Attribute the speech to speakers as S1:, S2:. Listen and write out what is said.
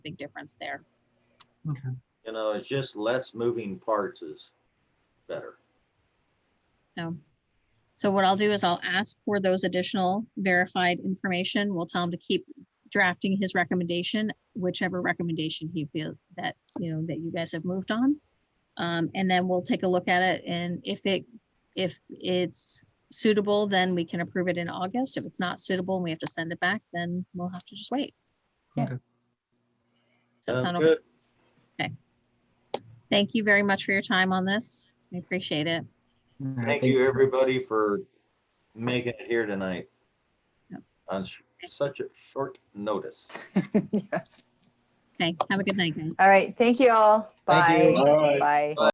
S1: big difference there.
S2: You know, it's just less moving parts is better.
S1: So, so what I'll do is I'll ask for those additional verified information. We'll tell him to keep drafting his recommendation, whichever recommendation he feels that, you know, that you guys have moved on. Um, and then we'll take a look at it and if it, if it's suitable, then we can approve it in August. If it's not suitable and we have to send it back, then we'll have to just wait. Yeah.
S3: Okay.
S1: Does that
S2: Sounds
S1: sound okay?
S2: good.
S1: Thank you very much for your time on this. I appreciate it.
S3: All right,
S2: Thank
S3: thanks.
S2: you, everybody, for making it here tonight.
S1: Yep.
S2: On sh- such a short notice.
S4: Yeah.
S1: Okay, have a good night, guys.
S4: All right, thank you all.
S2: Thank you.
S4: Bye. Bye.